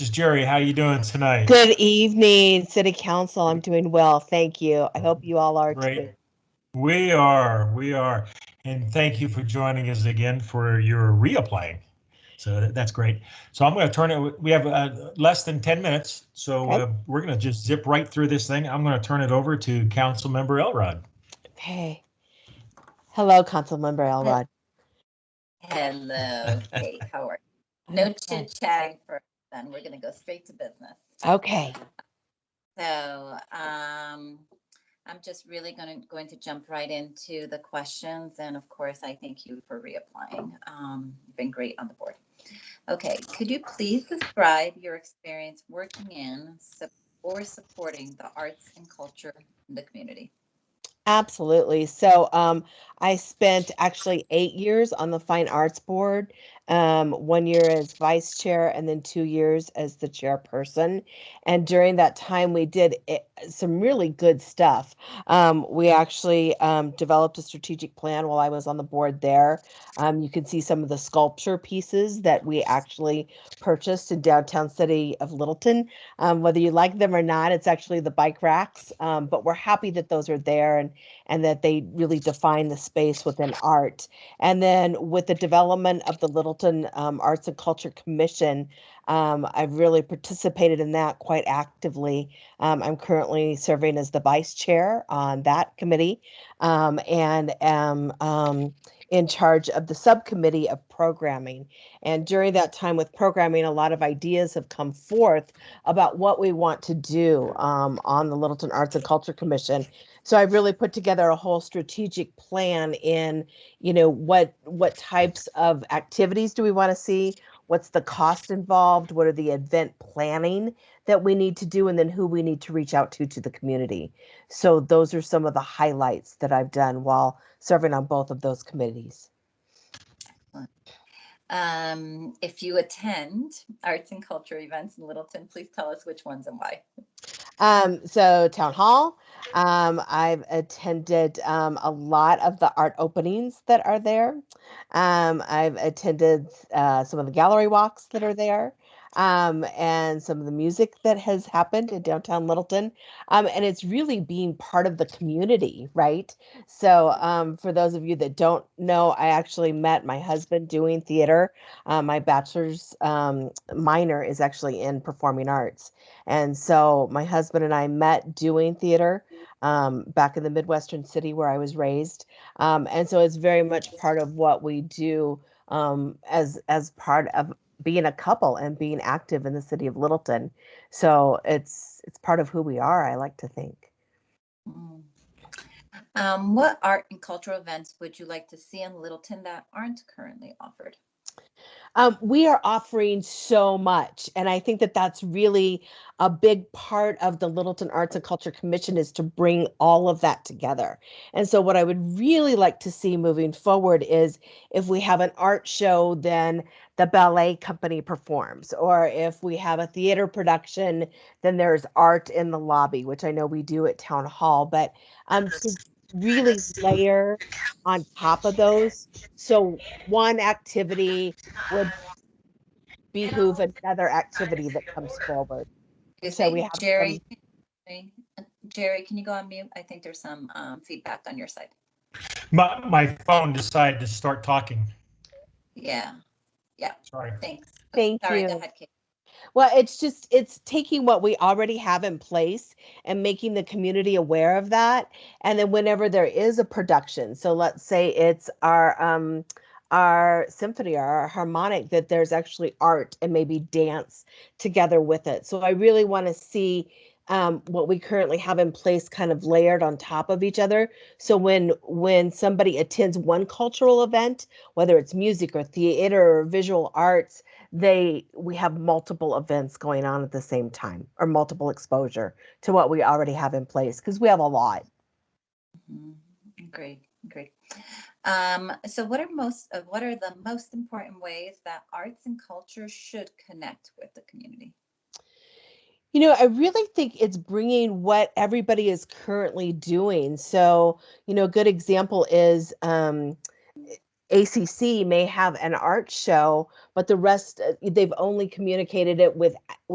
Just Jerry, how you doing tonight? Good evening, City Council. I'm doing well, thank you. I hope you all are Great. too. We are, we are. And thank you for joining us again for your reapplying. So that- that's great. So I'm going to turn it, we have uh, less than 10 minutes, so Okay. uh, we're going to just zip right through this thing. I'm going to turn it over to Councilmember Elrod. Hey. Hello, Councilmember Elrod. Hello, Kate, how are you? No Okay. chit chatting for, us then we're gonna go straight to business. Okay, So, um, I'm just really gonna, going to jump right into the questions and of course, I thank you for reapplying. Um, you've been great on the board. Okay, could you please describe your experience working in sup- or supporting the arts and culture in the community? absolutely. So um, I spent actually eight years on the Fine Arts Board. Um, one year as vice chair and then two years as the chairperson. And during that time, we did it, some really good stuff. Um, we actually um, developed a strategic plan while I was on the board there. Um, you can see some of the sculpture pieces that we actually purchased in downtown city of Littleton. Um, whether you like them or not, it's actually the bike racks, um, but we're happy that those are there and and that they really define the space within art. And then with the development of the Littleton um, Arts and Culture Commission, um, I've really participated in that quite actively. Um, I'm currently serving as the vice chair on that committee um, and am um, in charge of the subcommittee of programming. And during that time with programming, a lot of ideas have come forth about what we want to do um, on the Littleton Arts and Culture Commission. So I've really put together a whole strategic plan in, you know, what what types of activities do we want to see? What's the cost involved? What are the event planning that we need to do? And then who we need to reach out to to the community. So those are some of the highlights that I've done while serving on both of those committees. Um, if you attend arts and culture events in Littleton, please tell us which ones and why. Um, so town hall. Um, I've attended um, a lot of the art openings that are there. Um, I've attended uh, some of the gallery walks that are there, um, and some of the music that has happened in downtown Littleton. Um, and it's really being part of the community, right? So, um, for those of you that don't know, I actually met my husband doing theater. Uh, my bachelor's um, minor is actually in performing arts. And so my husband and I met doing theater um, back in the Midwestern city where I was raised. Um, and so it's very much part of what we do um, as as part of being a couple and being active in the city of Littleton. So it's it's part of who we are, I like to think. Mm. Um, what art and cultural events would you like to see in Littleton that aren't currently offered? Um, we are offering so much, and I think that that's really a big part of the Littleton Arts and Culture Commission is to bring all of that together. And so, what I would really like to see moving forward is if we have an art show, then the ballet company performs, or if we have a theater production, then there's art in the lobby, which I know we do at Town Hall. But um, to really layer on top of those, so one activity would behoove another activity that comes forward. You So say, we have Jerry, Jerry, can you go on mute? I think there's some um, feedback on your side. My, my phone decided to start talking. Yeah, Sorry. thanks. Thank Sorry, go you. ahead, Kate. Well, it's just, it's taking what we already have in place and making the community aware of that. And then whenever there is a production, so let's say it's our, um, our symphony or our harmonic, that there's actually art and maybe dance together with it. So I really want to see um, what we currently have in place kind of layered on top of each other. So when when somebody attends one cultural event, whether it's music or theater or visual arts, they we have multiple events going on at the same time or multiple exposure to what we already have in place because we have a lot Mhm. Great, great. Um, so what are most, uh, what are the most important ways that arts and culture should connect with the community? you know i really think it's bringing what everybody is currently doing so you know a good example is um acc may have an art show but the rest uh, they've only communicated it with